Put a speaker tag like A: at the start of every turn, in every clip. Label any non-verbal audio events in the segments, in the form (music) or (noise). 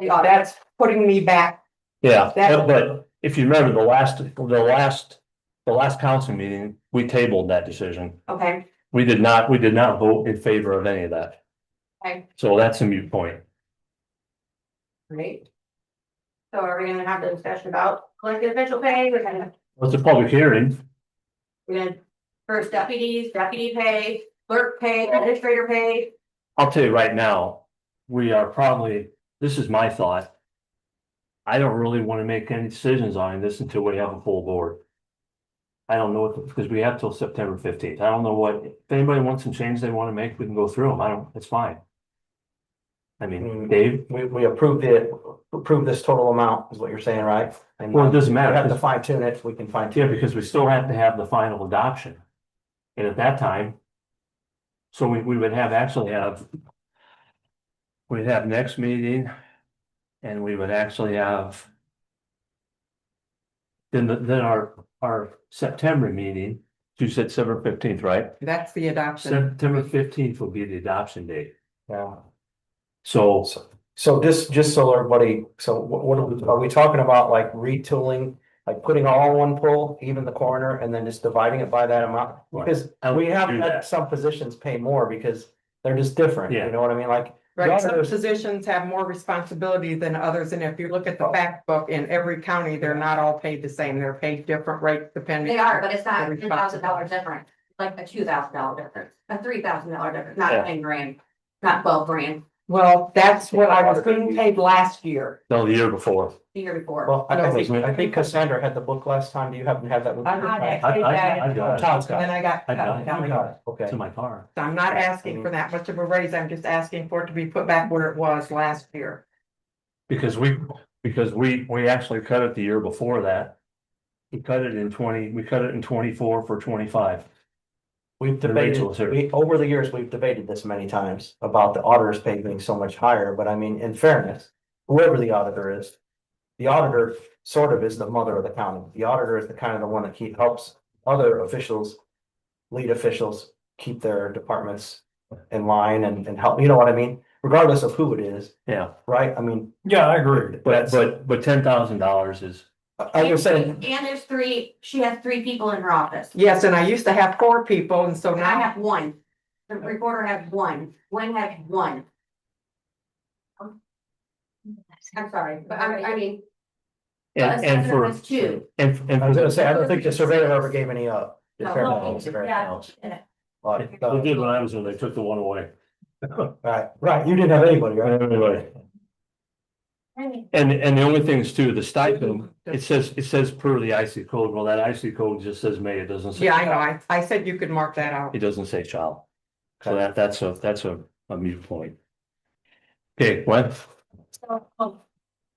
A: Uh, that's putting me back,
B: Yeah,
A: That-
B: but if you remember the last, the last, the last council meeting, we tabled that decision.
A: okay,
B: We did not, we did not vote in favor of any of that.
A: Okay.
B: So that's a mute point.
A: great. So are we gonna have the discussion about collective official pay, we're gonna,
B: Well, It's a public hearing.
A: we're gonna, first deputies, deputy pay, clerk pay, administrator pay?
B: I'll tell you right now, we are probably, this is my thought. I don't really want to make any decisions on this until we have a full board. I don't know what, because we have till September fifteenth. I don't know what, if anybody wants some change they want to make, we can go through them. I don't, it's fine. I mean,
C: Mm.
B: Dave,
C: We, we approved it, approved this total amount is what you're saying, right? And
B: well, it
C: we
B: doesn't matter.
C: have to
B: 'cause-
C: fine tune it, we can fine tune.
B: Yeah, because we still have to have the final adoption. And at that time. So we, we would have actually have. We'd have next meeting. And we would actually have. Then, the- then our, our September meeting, you said September fifteenth, right?
D: That's the adoption.
B: September fifteenth will be the adoption date.
C: Yeah.
B: So
C: So this, just so everybody, so what, what are we, are we talking about like retooling? Like putting all in one pool, even the corner, and then just dividing it by that amount?
B: Right.
C: Because
B: I
C: we
B: would
C: have
B: do
C: had
B: that.
C: some positions pay more because they're just different,
B: Yeah.
C: you know what I mean? Like.
D: Right, some
C: Others-
D: positions have more responsibility than others, and if you look at the fact book, in every county, they're not all paid the same, they're paid different rates depending.
E: They are, but it's not
D: Every
E: ten thousand dollar
D: possible.
E: difference, like a two thousand dollar difference, a three thousand dollar difference,
B: Yeah.
E: not ten grand, not twelve grand,
D: Well, that's what I was being paid last year.
B: no, the year before.
E: the year before.
C: Well, I I
D: No.
C: think, I think Cassandra had the book last time. Do you happen to have that? with
D: I
C: you?
D: had it.
B: I, I, I
C: Oh,
B: got
C: Todd's
D: And
C: got
D: then
C: it.
D: I got.
B: I got it.
D: got
C: You
D: me.
C: got it.
B: it
C: Okay.
B: to my car.
D: So I'm not asking for that much of a raise, I'm just asking for it to be put back where it was last year.
B: Because we, because we, we actually cut it the year before that. We cut it in twenty, we cut it in twenty-four for twenty-five.
C: We've
B: The
C: debated,
B: Rachel's here.
C: we, over the years, we've debated this many times about the auditor's pay being so much higher, but I mean, in fairness, whoever the auditor is. The auditor sort of is the mother of the county. The auditor is the kind of the one that keep, helps other officials. Lead officials keep their departments in line and, and help, you know what I mean? Regardless of who it is,
B: Yeah,
C: right? I mean,
F: Yeah, I agree.
B: but, but, but ten thousand dollars is,
C: I- I was saying,
E: And there's three, she has three people in her office,
D: Yes, and I used to have four people, and so
E: and I
D: now,
E: have one, the recorder has one, Gwen has one. I'm sorry, but I, I mean,
B: and, and
E: Assessor
B: for.
E: was two.
B: And, and.
C: I was
B: for-
C: gonna say, I don't think the surveyor ever gave any up. in
E: No,
C: fairness, in
E: yeah.
C: fairness. But,
B: They
C: uh,
B: did when I was there, they took the one away.
C: Right, right, you didn't have anybody, right?
B: Anyway, and, and the only thing is too, the stipend, it says, it says per the IC code, well, that IC code just says may, it doesn't say.
D: yeah, I know, I, I said you could mark that out.
B: It doesn't say child. So
C: Okay.
B: that, that's a, that's a, a mute point. Okay, what?
G: So, um,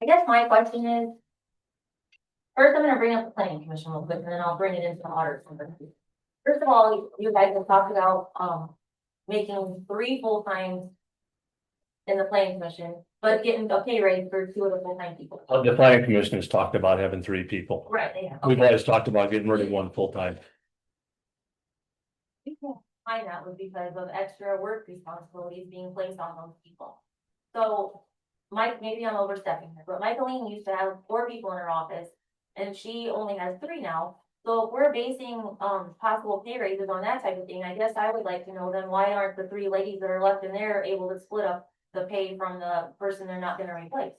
G: I guess my question is. First, I'm gonna bring up the planning commission real quick, and then I'll bring it into the audit. committee. First of all, you guys have talked about, um, making three full-time. In the planning commission, but getting a pay raise for two of the full-time people.
B: Uh, The planning commission has talked about having three people.
G: Right, yeah.
B: We've always talked about getting rid of one full-time.
G: Find that was because of extra work responsibilities being placed on those people. So, Mike, maybe I'm overstepping here, but Michaeline used to have four people in her office. And she only has three now, so if we're basing, um, possible pay raises on that type of thing, I guess I would like to know then why aren't the three ladies that are left in there able to split up? The pay from the person they're not gonna replace,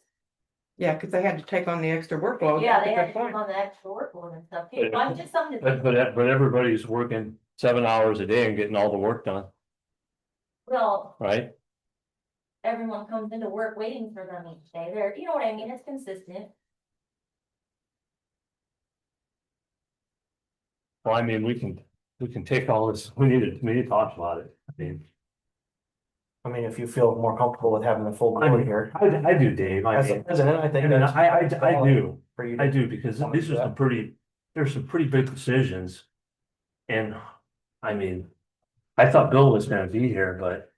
D: Yeah, because they had to take on the extra workload.
G: yeah,
D: Oh, That's a
G: they
D: good
G: had to
D: point.
G: take on the extra workload and stuff, too. So I'm just something. to
B: But,
D: (laughs)
G: think
B: but, but everybody's working seven hours a day and getting all the work done,
G: Well,
B: right?
G: everyone comes into work waiting for them each day, they're, you know what I mean, it's consistent.
B: Well, I mean, we can, we can take all this, we need to, we need to talk about it. I mean,
C: I mean, if you feel more comfortable with having the full
B: I
C: board
B: mean,
C: here,
B: I, I do, Dave, I
C: as a
B: mean,
C: president, I think
B: and
C: that's.
B: I, I, I do,
C: For you. to-
B: I do, because these are some pretty, there's some pretty big decisions. And, I mean, I thought Bill was gonna be here, but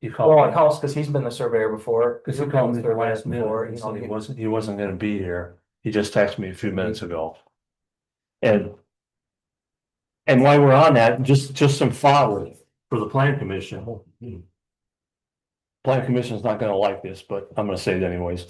B: he called.
C: Well, it helps because he's been the surveyor before.
B: Because he
C: you've
B: called
C: been
B: me
C: the
B: the last
C: surveyor before,
B: minute, he
C: you know,
B: said he
C: you-
B: wasn't, he wasn't gonna be here, he just texted me a few minutes ago. And. And while we're on that, just, just some follow for the plan commission. Plan commission's not gonna like this, but I'm gonna say it anyways.